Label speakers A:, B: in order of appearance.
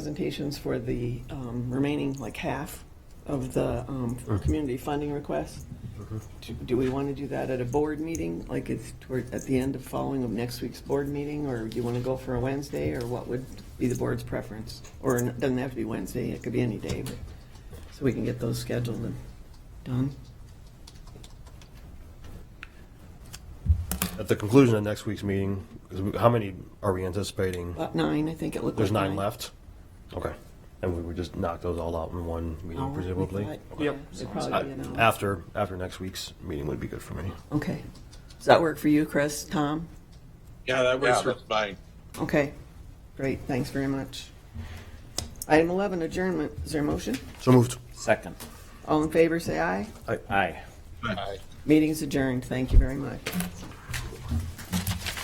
A: presentations for the um, remaining, like, half of the um, community funding request.
B: Mm-hmm.
A: Do- Do we want to do that at a board meeting, like it's toward, at the end of following of next week's board meeting? Or do you want to go for a Wednesday, or what would be the board's preference? Or it doesn't have to be Wednesday, it could be any day, but, so we can get those scheduled and done.
B: At the conclusion of next week's meeting, is we- how many are we anticipating?
A: About nine, I think it looked like.
B: There's nine left? Okay. And we would just knock those all out in one
A: Hour,
B: meeting
A: Oh, we
B: presumably?
A: thought.
B: Okay.
A: Yeah, It'd probably be an
B: I-
A: hour.
B: After, after next week's meeting would be good for me.
A: Okay. Does that work for you, Chris, Tom?
C: Yeah, that
D: Yeah,
C: works for
D: that's-
C: mine.
A: Okay, great, thanks very much. Item 11, adjournment, is there a motion?
B: So moved.
D: Second.
A: All in favor, say aye.
D: Aye.
C: Aye.
A: Meeting's adjourned, thank you very much.